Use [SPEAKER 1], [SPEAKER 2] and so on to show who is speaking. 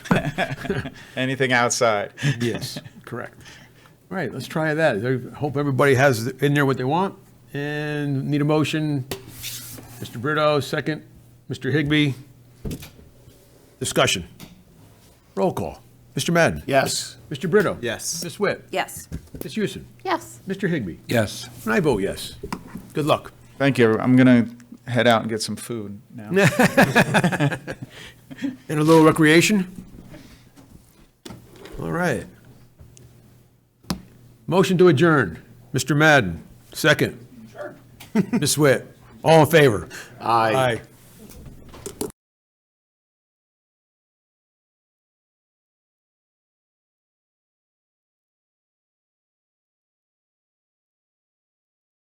[SPEAKER 1] Anything outside.
[SPEAKER 2] Yes, correct. All right, let's try that. I hope everybody has in there what they want. And need a motion. Mr. Brito, second. Mr. Higby. Discussion. Roll call. Mr. Madden.
[SPEAKER 3] Yes.
[SPEAKER 2] Mr. Brito.
[SPEAKER 3] Yes.
[SPEAKER 2] Ms. Witt.
[SPEAKER 4] Yes.
[SPEAKER 2] Ms. Houston.
[SPEAKER 4] Yes.
[SPEAKER 2] Mr. Higby.
[SPEAKER 5] Yes.
[SPEAKER 2] And I vote yes. Good luck.
[SPEAKER 1] Thank you. I'm going to head out and get some food now.
[SPEAKER 2] And a little recreation? All right. Motion to adjourn. Mr. Madden, second. Ms. Witt, all in favor?
[SPEAKER 3] Aye.
[SPEAKER 2] Aye.